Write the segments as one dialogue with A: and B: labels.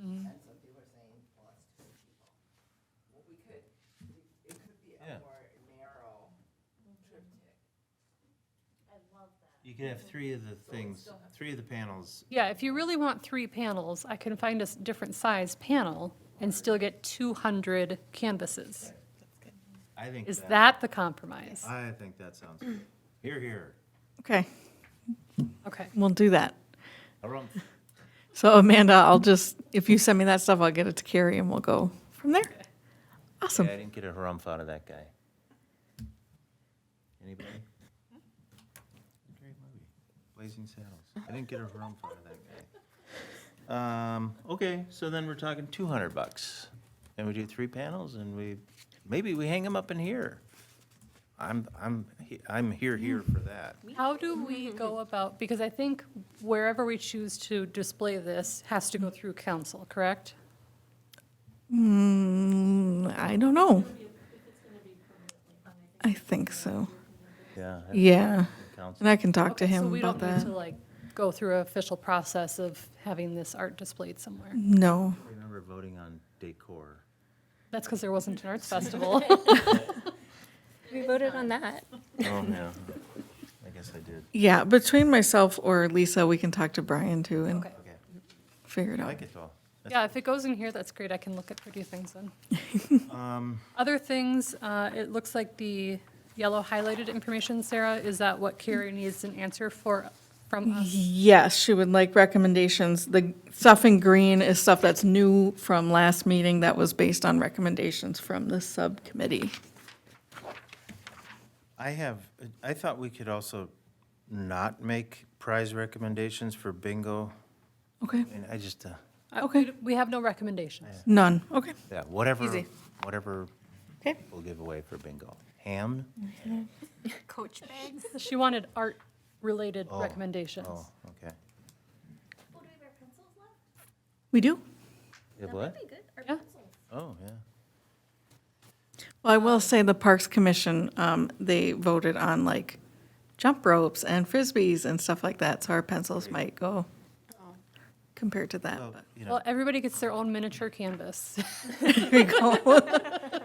A: And some people are saying, well, it's too many people. Well, we could, it could be
B: Yeah.
A: a more narrow triptych.
C: I love that.
B: You could have three of the things, three of the panels.
D: Yeah, if you really want three panels, I can find a s- different size panel and still get 200 canvases.
B: I think.
D: Is that the compromise?
B: I think that sounds good. Here, here.
E: Okay,
D: Okay,
E: we'll do that.
B: Harumph.
E: So Amanda, I'll just, if you send me that stuff, I'll get it to Carrie and we'll go from there.
B: Yeah,
E: Awesome.
B: I didn't get a harumph out of that guy. Anybody? Great movie, Blazing Saddles. I didn't get a harumph out of that guy. Um, okay, so then we're talking two hundred bucks. And we do three panels and we, maybe we hang them up in here. I'm, I'm, he- I'm here, here for that.
D: how do we go about, because I think wherever we choose to display this has to go through council, correct?
E: Mm, I don't know. I think so.
B: Yeah. I-
E: Yeah.
B: Council.
E: And I can talk to
D: Okay,
E: him about
D: So we don't need
E: that.
D: to like go through an official process of having this art displayed somewhere.
E: Mm-hmm. No.
B: I Remember voting on decor.
D: That's because there wasn't an arts festival.
F: We voted on that.
B: Oh, yeah. I guess I did.
E: Yeah, between myself or Lisa, we can talk to Brian too and
D: Okay.
B: Okay.
E: figure it
B: I
E: out.
B: like it though.
D: Yeah, if it goes in here, that's great. I can look at pretty things then.
B: Um,
D: Other things, uh, it looks like the yellow highlighted information, Sarah, is that what Carrie needs an answer for from us?
E: Yes, she would like recommendations. The stuff in green is stuff that's new from last meeting that was based on recommendations from the subcommittee.
B: I have, I thought we could also not make prize recommendations for bingo,
E: Okay,
B: and I just, uh,
D: Uh,
E: Okay.
D: we- We have no recommendations.
E: none, okay.
B: yeah, whatever,
E: Easy.
B: whatever
E: Okay.
B: we'll give away for bingo. Ham?
F: Coach bags.
D: She wanted art-related
B: Oh,
D: recommendations.
B: Oh, okay.
F: Oh, do we have our pencils left?
E: We do?
B: It
F: That
B: what?
F: might be good, our
D: Yeah.
F: pencils.
B: Oh, yeah.
E: Well, I will say the Parks Commission, um, they voted on like jump ropes and frisbees and stuff like that, so our pencils might go compared to that.
B: Well, you know,
D: Well, everybody gets their own miniature canvas.
E: but Here we go.
B: y-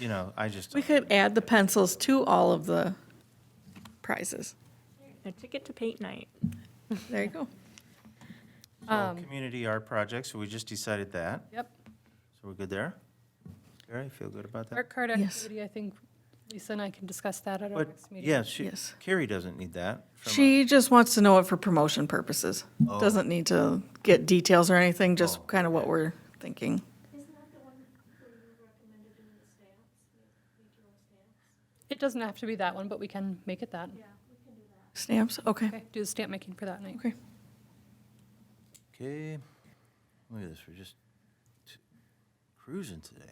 B: you know, I just,
E: We could add the pencils to all of the prizes.
G: A ticket to paint night.
E: There you go.
B: so
E: um,
B: community art projects, so we just decided that,
D: Yep.
B: so we're good there? All right, feel good about that?
D: Art card
E: Yes.
D: activity, I think Lisa and I can discuss that at our
B: But,
D: next meeting.
B: yeah, she,
E: Yes.
B: Carrie doesn't need that. from
E: She just wants to know it for promotion purposes.
B: Oh.
E: Doesn't need to get details or anything, just kind of what we're thinking.
F: Isn't that the one where you recommended doing the stamps? Make your own stamps?
D: It doesn't have to be that one, but we can make it that.
E: Stamps, okay.
D: Okay, do the stamp making for that night.
E: Okay.
B: Okay, look at this, we're just t- cruising today.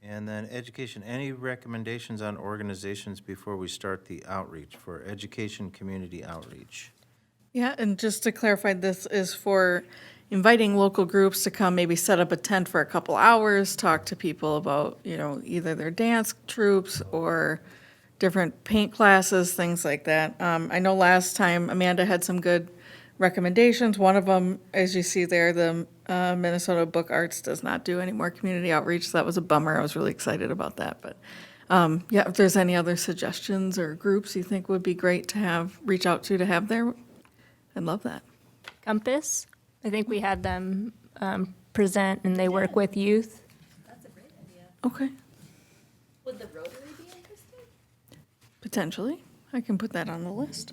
B: And then education, any recommendations on organizations before we start the outreach for education, community outreach?
E: Yeah, and just to clarify, this is for inviting local groups to come, maybe set up a tent for a couple hours, talk to people about, you know, either their dance troops or different paint classes, things like that. Um, I know last time Amanda had some good recommendations. One of them, as you see there, the uh, Minnesota Book Arts does not do any more community outreach. So that was a bummer. I was really excited about that. But um, yeah, if there's any other suggestions or groups you think would be great to have, reach out to to have there, I'd love that.
G: Compass, I think we had them um, present and they work with youth.
F: That's a great idea.
E: Okay,
F: Would the Rotary be interested?
E: potentially. I can put that on the list.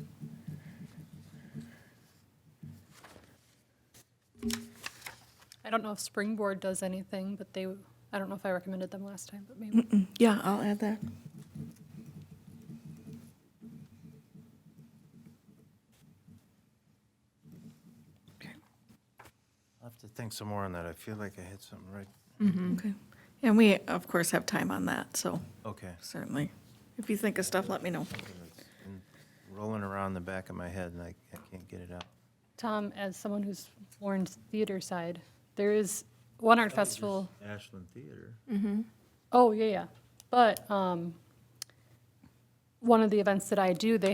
D: I don't know if Springboard does anything, but they, I don't know if I recommended them last time, but maybe.
E: Yeah, I'll add that.
B: I'll have to think some more on that, I feel like I had something right,
E: Okay. And we, of course, have time on that, so
B: okay.
E: certainly. If you think of stuff, let me know.
B: It's been Rolling around the back of my head and I, I can't get it out.
D: Tom, as someone who's more in theater side, there is one art festival,
B: Ashland Theater.
D: oh, yeah, yeah. But um, one of the events that I do, they